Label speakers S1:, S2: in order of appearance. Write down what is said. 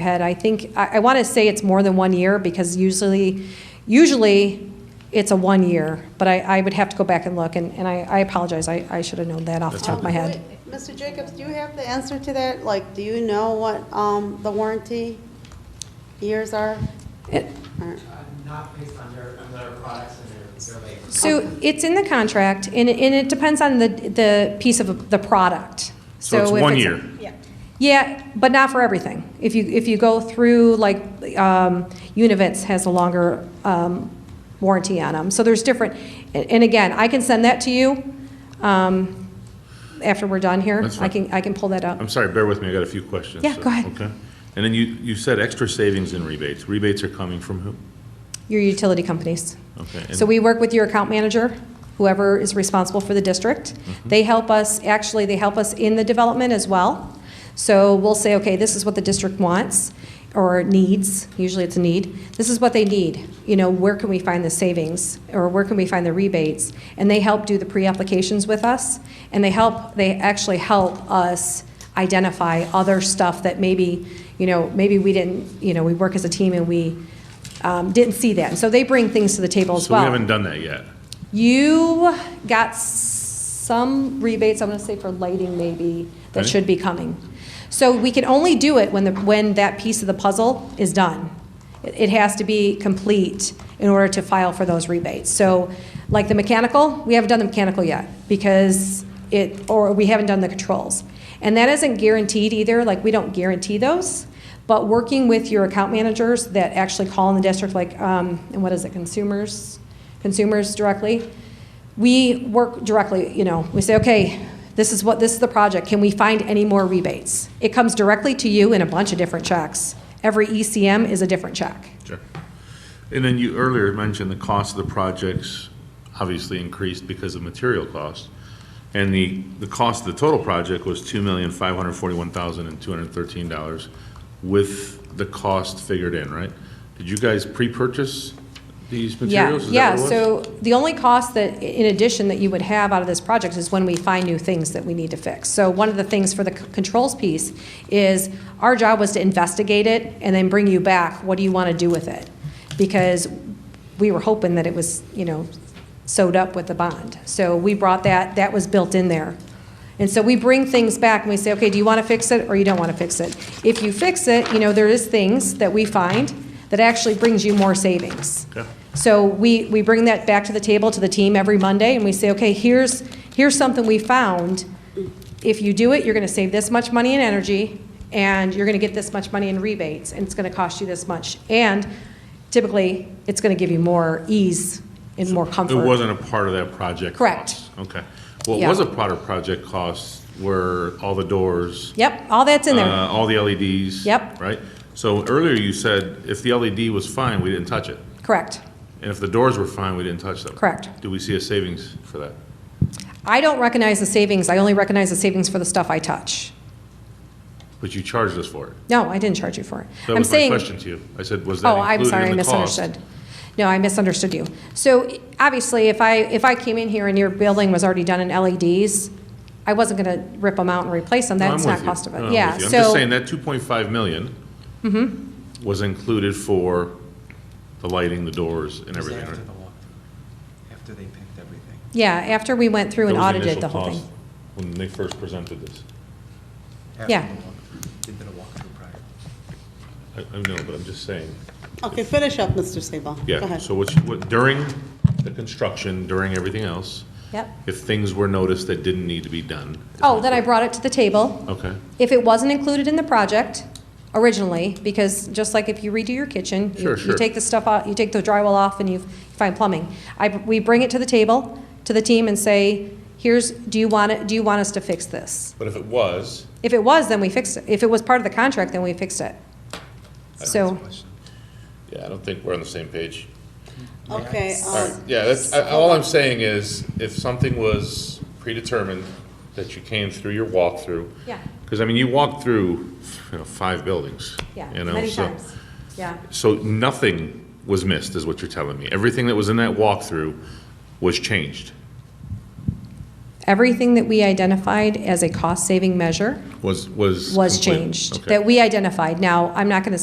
S1: head. I think, I, I want to say it's more than one year because usually, usually it's a one year, but I, I would have to go back and look and, and I, I apologize. I, I should have known that off the top of my head.
S2: Wait, Mr. Jacobs, do you have the answer to that? Like, do you know what um, the warranty years are?
S1: It-
S2: Or-
S3: Uh, Not based on their, on their products and their, their labor.
S1: So it's in the contract and, it- and it depends on the, the piece of the product.
S4: So it's
S1: if
S4: one year.
S1: Yeah, but not for everything. If you, if you go through, like, um, Univitz has a longer um, warranty on them, so there's different, and and again, I can send that to you um, after we're done here.
S4: That's
S1: I
S4: fine.
S1: can, I can pull that up.
S4: I'm sorry, bear with me, I got a few questions.
S1: Yeah,
S4: so-
S1: go ahead.
S4: Okay. And then you, you said extra savings in rebates. Rebates are coming from who?
S1: Your utility companies.
S4: Okay, and-
S1: So we work with your account manager, whoever is responsible for the district. They help us, actually, they help us in the development as well. So we'll say, okay, this is what the district wants or needs, usually it's a need. This is what they need. You know, where can we find the savings or where can we find the rebates? And they help do the pre-applications with us and they help, they actually help us identify other stuff that maybe, you know, maybe we didn't, you know, we work as a team and we um, didn't see that. And so they bring things to the table as
S4: So
S1: well.
S4: we haven't done that yet.
S1: You got some rebates, I'm going to say for lighting maybe, that
S4: Okay.
S1: should be coming. So we can only do it when the, when that piece of the puzzle is done. It it has to be complete in order to file for those rebates. So like the mechanical, we haven't done the mechanical yet because it, or we haven't done the controls. And that isn't guaranteed either, like we don't guarantee those. But working with your account managers that actually call in the district, like, um, and what is it, consumers? consumers directly. We work directly, you know, we say, okay, this is what, this is the project, can we find any more rebates? It comes directly to you in a bunch of different checks. Every ECM is a different check.
S4: Sure. And then you earlier mentioned the cost of the projects obviously increased because of material costs. And the, the cost of the total project was two million, five hundred forty-one thousand and two hundred thirteen dollars with the cost figured in, right? Did you guys pre-purchase these
S1: Yeah,
S4: materials? Is that
S1: yeah,
S4: what it was?
S1: so the only cost that, in addition, that you would have out of this project is when we find new things that we need to fix. So one of the things for the c- controls piece is, our job was to investigate it and then bring you back, what do you want to do with it? Because we were hoping that it was, you know, sewed up with the bond. So we brought that, that was built in there. And so we bring things back and we say, okay, do you want to fix it or you don't want to fix it? If you fix it, you know, there is things that we find that actually brings you more savings.
S4: Okay.
S1: So we, we bring that back to the table, to the team every Monday, and we say, okay, here's, here's something we found. If you do it, you're going to save this much money in energy, and you're going to get this much money in rebates, and it's going to cost you this much. And typically, it's going to give you more ease and more
S4: It
S1: comfort.
S4: wasn't a part of that project
S1: Correct.
S4: cost? Okay. What
S1: Yeah.
S4: was a part of project cost were all the doors?
S1: Yep, all that's in there.
S4: uh, All the LEDs?
S1: Yep.
S4: Right? So earlier you said if the LED was fine, we didn't touch it.
S1: Correct.
S4: And if the doors were fine, we didn't touch them.
S1: Correct.
S4: Do we see a savings for that?
S1: I don't recognize the savings. I only recognize the savings for the stuff I touch.
S4: But you charged us for it.
S1: No, I didn't charge you for it.
S4: That
S1: I'm
S4: was my
S1: saying.
S4: question to you. I said, was that
S1: Oh, I'm
S4: included
S1: sorry, I
S4: in the cost?
S1: misunderstood. No, I misunderstood you. So i- obviously, if I, if I came in here and your building was already done in LEDs, I wasn't going to rip them out and replace them.
S4: No, I'm
S1: That's not
S4: with you.
S1: cost of
S4: No, I'm
S1: it.
S4: with
S1: Yeah,
S4: you. I'm just saying
S1: so, Mm-hmm.
S4: that 2.5 million was included for the lighting, the doors, and
S3: It was
S4: everything, right?
S3: After the walkthrough, after they picked everything.
S1: yeah, after we went through
S4: That
S1: and
S4: was
S1: audited
S4: initial
S1: the whole
S4: cost
S1: thing.
S4: When they first presented this.
S3: After
S1: Yeah.
S3: the walkthrough. They did a walkthrough prior.
S4: I, I know, but I'm just saying,
S2: Okay, finish up, Mr. Sabal. Go
S4: yeah,
S2: ahead.
S4: so what's, what, during the construction, during everything else,
S1: Yep.
S4: if things were noticed that didn't need to be done. is
S1: Oh,
S4: my
S1: then I
S4: que-
S1: brought it to the table.
S4: Okay,
S1: If it wasn't included in the project originally, because just like if you redo your kitchen, you-
S4: Sure,
S1: you
S4: sure.
S1: take the stuff out, you take the drywall off and you find plumbing. I, we bring it to the table, to the team and say, here's, do you want it, do you want us to fix this?
S4: but if it was,
S1: If it was, then we fixed it. If it was part of the contract, then we fixed it. So,
S4: yeah, I don't think we're on the same page.
S2: Okay,
S4: All right,
S2: um,
S4: yeah, that's, I- all I'm saying is, if something was predetermined, that you came through your walkthrough.
S1: Yeah.
S4: Because, I mean, you walked through, you know, five buildings.
S1: yeah,
S4: you know,
S1: many
S4: so-
S1: times. Yeah,
S4: So nothing was missed, is what you're telling me. Everything that was in that walkthrough was changed.
S1: Everything that we identified as a cost-saving measure
S4: was, was.
S1: was
S4: complete.
S1: changed,
S4: Okay.
S1: that we identified. Now, I'm not going to